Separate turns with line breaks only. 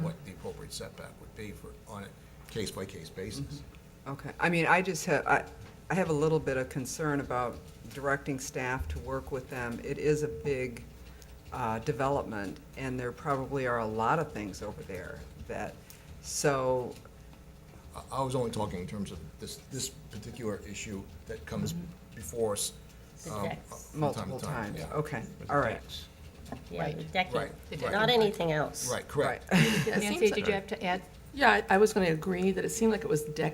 side setback would be for, on a case-by-case basis.
Okay, I mean, I just have, I, I have a little bit of concern about directing staff to work with them. It is a big, uh, development, and there probably are a lot of things over there that, so,
I, I was only talking in terms of this, this particular issue that comes before us.
The
um,
decks.
from time to
multiple
time,
times,
yeah.
okay, all right.
Yeah, the
Right.
decking,
Right, The
not anything else.
Right, correct.
Right.
It
Nancy,
seems
did
like-
you have to add?
Yeah, I I was going to agree that it seemed like it was deck